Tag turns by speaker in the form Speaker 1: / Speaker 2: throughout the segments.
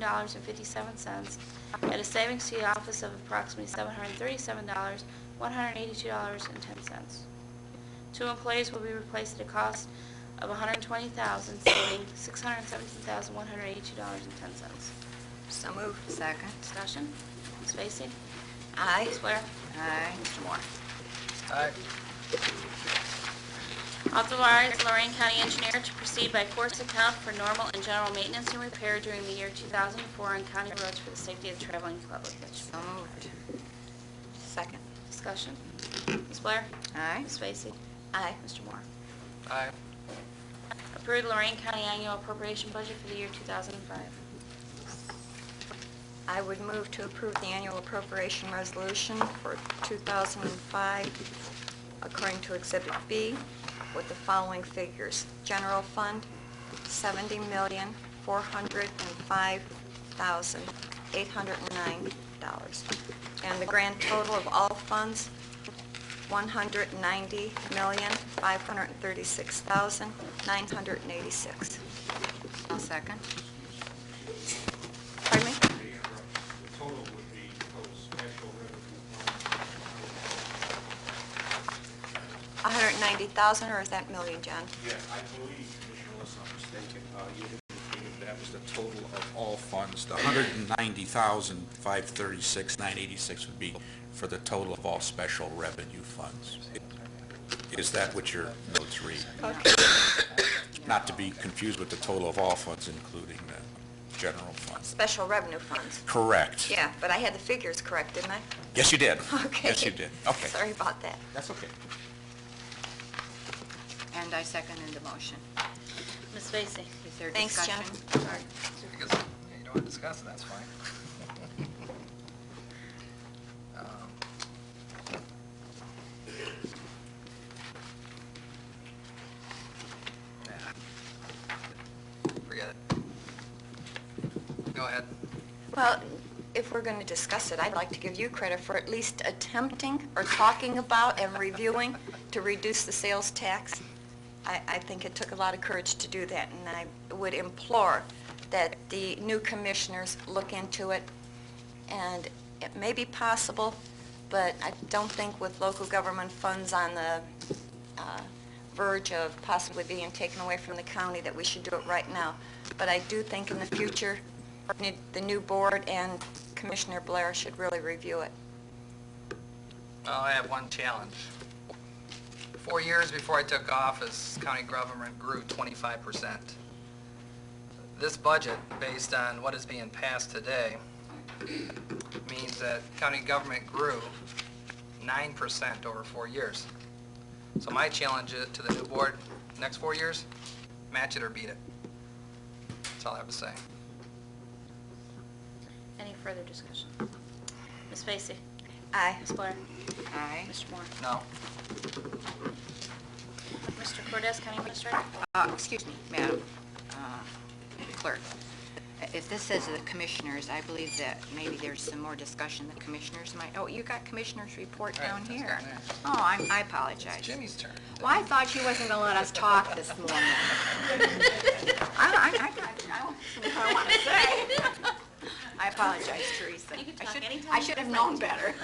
Speaker 1: $261.57, at a savings to the office of approximately $737, $182.10. Two employees will be replaced at a cost of $120,000, saving $617,182.10.
Speaker 2: So moved. Second.
Speaker 1: Discussion? Ms. Vacy?
Speaker 2: Aye.
Speaker 1: Ms. Blair?
Speaker 2: Aye.
Speaker 1: Mr. Moore?
Speaker 3: Aye.
Speaker 1: Authorize Lorraine County Engineer to proceed by course account for normal and general maintenance and repair during the year 2004 on county roads for the safety of the traveling public. That should
Speaker 2: So moved. Second.
Speaker 1: be Discussion. Ms. Blair?
Speaker 2: Aye.
Speaker 1: Ms. Vacy?
Speaker 2: Aye.
Speaker 1: Mr. Moore?
Speaker 3: Aye.
Speaker 1: Approve Lorraine County Annual Appropriation Budget for the year 2005.
Speaker 2: I would move to approve the annual appropriation resolution for 2005 according to Exhibit B with the following figures. General Fund, $70,405,809. And the grand total of all funds, $190,536,986. I'll second. Pardon me?
Speaker 4: The uh, total would be total special revenue fund.
Speaker 2: 190,000, or is that million, John?
Speaker 4: Yeah, I believe, Commissioner, unless I'm mistaken, uh, you indicated that was the total of all funds. The $190,536,986 would be for the total of all special revenue funds. Is that what your notes read? Not to be confused with the total of all funds, including the general funds.
Speaker 2: Special revenue funds.
Speaker 4: Correct.
Speaker 2: Yeah, but I had the figures correct, didn't I?
Speaker 4: Yes, you did.
Speaker 2: Okay.
Speaker 4: Yes, you did. Okay.
Speaker 2: Sorry about that.
Speaker 4: That's okay.
Speaker 5: And I second in the motion.
Speaker 1: Ms. Vacy?
Speaker 5: Is there
Speaker 2: Thanks, Jen.
Speaker 5: discussion?
Speaker 3: Sorry. Because you don't want to discuss it, that's fine. Um, nah, Forget it. Go ahead.
Speaker 2: Well, if we're going to discuss it, I'd like to give you credit for at least attempting or talking about and reviewing to reduce the sales tax. I, I think it took a lot of courage to do that, and I would implore that the new commissioners look into it. And it may be possible, but I don't think with local government funds on the uh, verge of possibly being taken away from the county that we should do it right now. But I do think in the future, ne- the new board and Commissioner Blair should really review it.
Speaker 3: Oh, I have one challenge. Four years before I took office, county government grew 25%. This budget, based on what is being passed today, means that county government grew 9% over four years. So my challenge i- to the new board, next four years, match it or beat it. That's all I have to say.
Speaker 1: Any further discussion? Ms. Vacy?
Speaker 2: Aye.
Speaker 1: Ms. Blair?
Speaker 5: Aye.
Speaker 1: Mr. Moore?
Speaker 3: No?
Speaker 1: Mr. Cordes, County Administrator?
Speaker 5: Uh, Excuse me, Madam uh, Clerk. If this says the commissioners, I believe that maybe there's some more discussion the commissioners might, oh, you got commissioners' report
Speaker 3: Right,
Speaker 5: down
Speaker 3: that's
Speaker 5: here.
Speaker 3: down there.
Speaker 5: Oh, I'm- I apologize.
Speaker 3: Jimmy's turn.
Speaker 5: Well, I thought you wasn't going to let us talk this morning. I I- I got, I don't know what I want to say. I apologize, Teresa.
Speaker 1: You can
Speaker 5: I
Speaker 1: talk
Speaker 5: should-
Speaker 1: anytime
Speaker 5: I
Speaker 1: you
Speaker 5: should have
Speaker 1: feel
Speaker 5: known
Speaker 1: free to.
Speaker 5: better.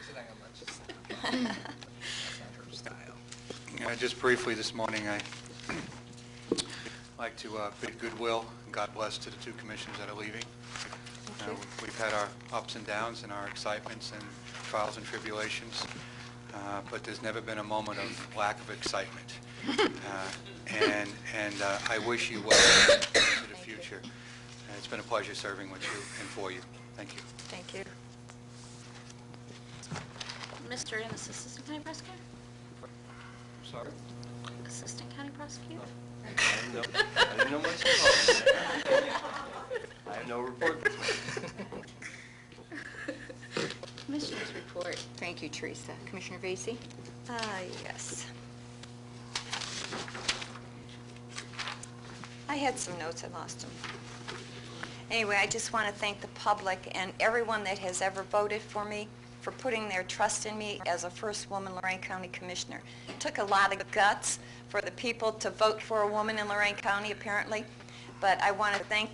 Speaker 3: She's not gonna let you stop. That's not her style.
Speaker 6: Yeah, Just briefly this morning, I like to uh, bid goodwill and God bless to the two commissioners that are leaving. Uh, We've had our ups and downs and our excitements and trials and tribulations, uh, but there's never been a moment of lack of excitement. Uh, And, and uh, I wish you well into the future. Uh, It's been a pleasure serving with you and for you. Thank you.
Speaker 2: Thank you.
Speaker 1: Mr. Ennis, Assistant County Prosecutor?
Speaker 7: Sorry?
Speaker 1: Assistant County Prosecutor?
Speaker 7: I didn't know, I didn't know much about it. I have no report this morning.
Speaker 5: Commissioners' report. Thank you, Teresa. Commissioner Vacy?
Speaker 2: Ah, yes. I had some notes, I lost them. Anyway, I just want to thank the public and everyone that has ever voted for me for putting their trust in me as a first woman Lorraine County Commissioner. It Took a lot of guts for the people to vote for a woman in Lorraine County, apparently, but I want to thank